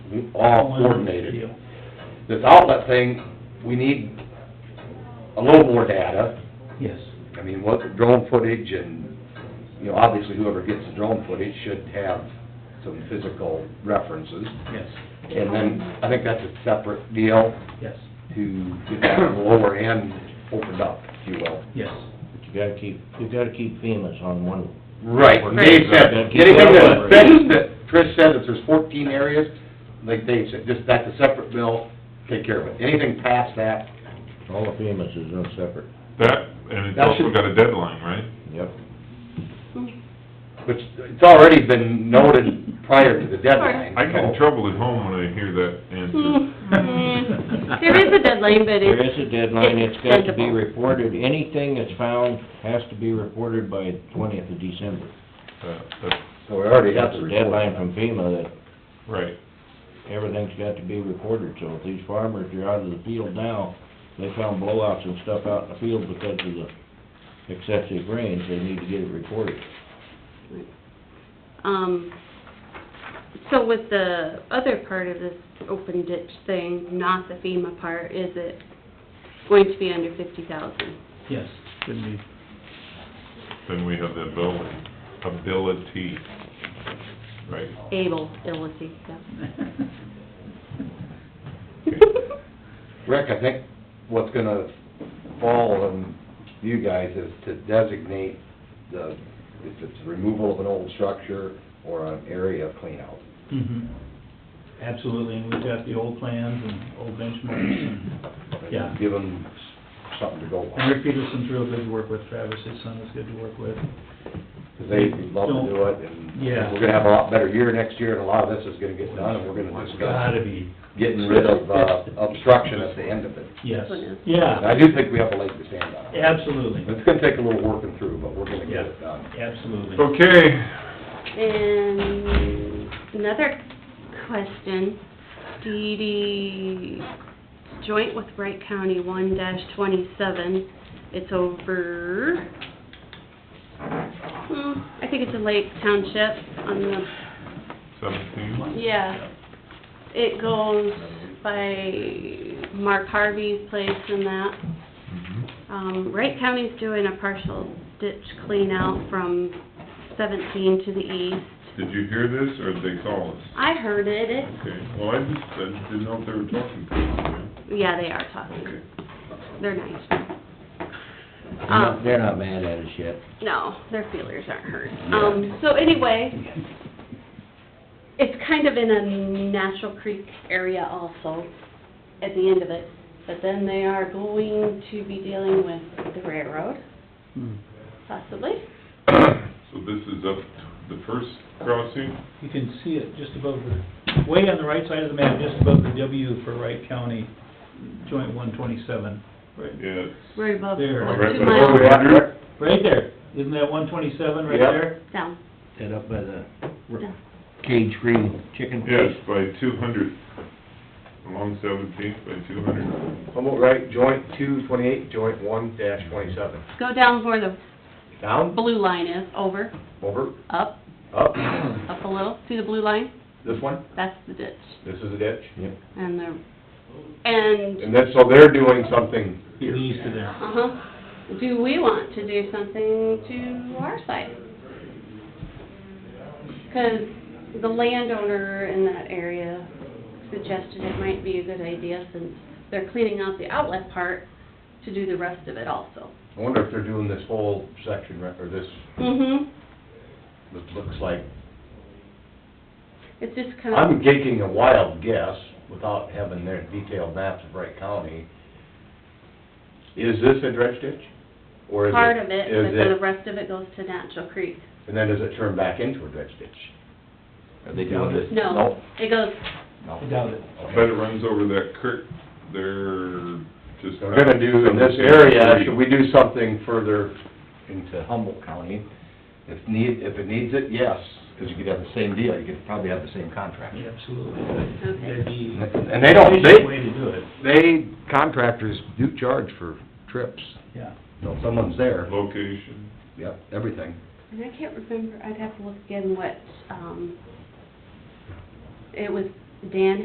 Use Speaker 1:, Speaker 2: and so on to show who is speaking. Speaker 1: Oh,
Speaker 2: all coordinated. This outlet thing, we need a little more data.
Speaker 1: Yes.
Speaker 2: I mean, what the drone footage and, you know, obviously whoever gets the drone footage should have some physical references.
Speaker 1: Yes,
Speaker 2: And then, I think that's a separate deal
Speaker 1: yes,
Speaker 2: to get that lower end opened up, if you will.
Speaker 1: yes.
Speaker 3: But you gotta keep, you gotta keep FEMA's on one.
Speaker 2: Right, Dave said, anything that, that Trish said, that there's fourteen areas, like Dave said, just, that's a separate bill, take care of it. Anything past that,
Speaker 3: All of FEMA's is in separate.
Speaker 4: That, and it's
Speaker 2: That
Speaker 4: also
Speaker 2: should-
Speaker 4: got a deadline, right?
Speaker 3: Yep.
Speaker 2: which, it's already been noted prior to the deadline.
Speaker 4: I get in
Speaker 2: so-
Speaker 4: trouble at home when I hear that answer.
Speaker 1: Mm.
Speaker 5: Mm-hmm. There is a deadline, but
Speaker 3: There
Speaker 5: it's...
Speaker 3: is a deadline, it's got to be
Speaker 5: sensible.
Speaker 3: reported, anything that's found has to be reported by twentieth of December.
Speaker 4: That- Uh, that's
Speaker 2: So we already have
Speaker 3: That's
Speaker 2: to
Speaker 3: a
Speaker 2: report.
Speaker 3: deadline from FEMA that
Speaker 4: Right,
Speaker 3: everything's got to be reported, so if these farmers are out of the field now, they found blowouts and stuff out in the field because of the excessive rains, they need to get it reported.
Speaker 5: Um, so with the other part of this open ditch thing, not the FEMA part, is it going to be under fifty thousand?
Speaker 1: Yes, should be.
Speaker 4: then we have the ability, ability, right?
Speaker 5: Able, ability, yeah.
Speaker 2: Rick, I think what's gonna fall on you guys is to designate the, if it's removal of an old structure or an area cleanout.
Speaker 1: Mhm. Absolutely, and we've got the old plans and old benchmarks and, yeah.
Speaker 2: Give them something to go
Speaker 1: And
Speaker 2: by,
Speaker 1: Rick Peterson's real good to work with, Travis, his son is good to work with.
Speaker 2: 'cause they love to do it, and
Speaker 1: Yeah.
Speaker 2: we're gonna have a lot better year next year, and a lot of this is gonna get done, and we're gonna discuss
Speaker 1: Gotta be,
Speaker 2: getting rid of, uh, obstruction at the end of it.
Speaker 1: yes,
Speaker 5: This one is.
Speaker 2: And
Speaker 1: yeah,
Speaker 2: I do think we have a leg to stand on.
Speaker 1: absolutely,
Speaker 2: It's gonna take a little working through, but we're gonna get it done.
Speaker 1: absolutely.
Speaker 4: Okay,
Speaker 5: And another question, DD joint with Wright County one dash twenty-seven, it's over, hmm, I think it's a Lake Township on the,
Speaker 4: seventeen,
Speaker 5: yeah. It goes by Mark Harvey's place and that.
Speaker 4: mhm,
Speaker 5: Um, Wright County's doing a partial ditch clean out from seventeen to the east.
Speaker 4: did you hear this, or did they call us?
Speaker 5: I heard it, it
Speaker 4: Okay, well, I just, I didn't know if they were talking to us,
Speaker 5: Yeah, they are
Speaker 4: yeah,
Speaker 5: talking.
Speaker 4: okay.
Speaker 5: They're nice.
Speaker 3: They're
Speaker 5: Um,
Speaker 3: not, they're not mad at us yet.
Speaker 5: No, their feelers aren't hurt. Um, so anyway, it's kind of in a natural creek area also at the end of it. But then they are going to be dealing with the railroad,
Speaker 1: Hmm.
Speaker 5: possibly.
Speaker 4: So this is up the first crossing,
Speaker 1: You can see it just above the, way on the right side of the map, just above the W for Wright County, joint one twenty-seven. Right,
Speaker 4: yeah, it's
Speaker 5: Right above,
Speaker 1: There.
Speaker 5: like
Speaker 4: Right
Speaker 5: two
Speaker 4: above where
Speaker 5: miles
Speaker 4: we are.
Speaker 1: right there, isn't that one twenty-seven right
Speaker 3: Yep.
Speaker 1: there?
Speaker 5: down.
Speaker 3: Set up by the
Speaker 5: Yeah.
Speaker 3: cage-free chicken
Speaker 4: Yes,
Speaker 3: place.
Speaker 4: by two hundred, along Seventeenth by two hundred.
Speaker 6: Humboldt Right, joint two twenty-eight, joint one dash twenty-seven.
Speaker 5: Go down where the
Speaker 6: Down,
Speaker 5: blue line is, over,
Speaker 6: over,
Speaker 5: up,
Speaker 6: up,
Speaker 5: up a little. See the blue line?
Speaker 6: this one,
Speaker 5: That's the ditch.
Speaker 6: this is a ditch.
Speaker 3: Yep.
Speaker 5: And the, and,
Speaker 6: And then, so they're doing something here.
Speaker 1: East of there.
Speaker 5: uh-huh, do we want to do something to our side? 'Cause the landowner in that area suggested it might be a good idea since they're cleaning out the outlet part to do the rest of it also.
Speaker 6: I wonder if they're doing this whole section, right, or this,
Speaker 5: Mm-hmm,
Speaker 6: this looks like,
Speaker 5: it's just kind of,
Speaker 6: I'm taking a wild guess, without having their detailed maps of Wright County. Is this a dredge ditch? Or is it?
Speaker 5: part of it,
Speaker 6: is
Speaker 5: but then the rest of it goes to Natural Creek.
Speaker 6: And then does it turn back into a dredge ditch? Are they doing this?
Speaker 5: No, it goes,
Speaker 6: No.
Speaker 1: I doubt it.
Speaker 4: I bet it runs over that creek there, just.
Speaker 6: We're gonna do in this area, should we do something further into Humboldt County?
Speaker 2: If need, if it needs it, yes, because you could have the same deal, you could probably have the same contract.
Speaker 1: Yeah, Absolutely, that'd be.
Speaker 2: And they don't- they-
Speaker 1: efficient Way to do it,
Speaker 2: They, contractors do charge for trips,
Speaker 1: yeah.
Speaker 2: so if someone's there,
Speaker 4: Location,
Speaker 2: yep, everything.
Speaker 5: And I can't remember, I'd have to look again what, um, it was Dan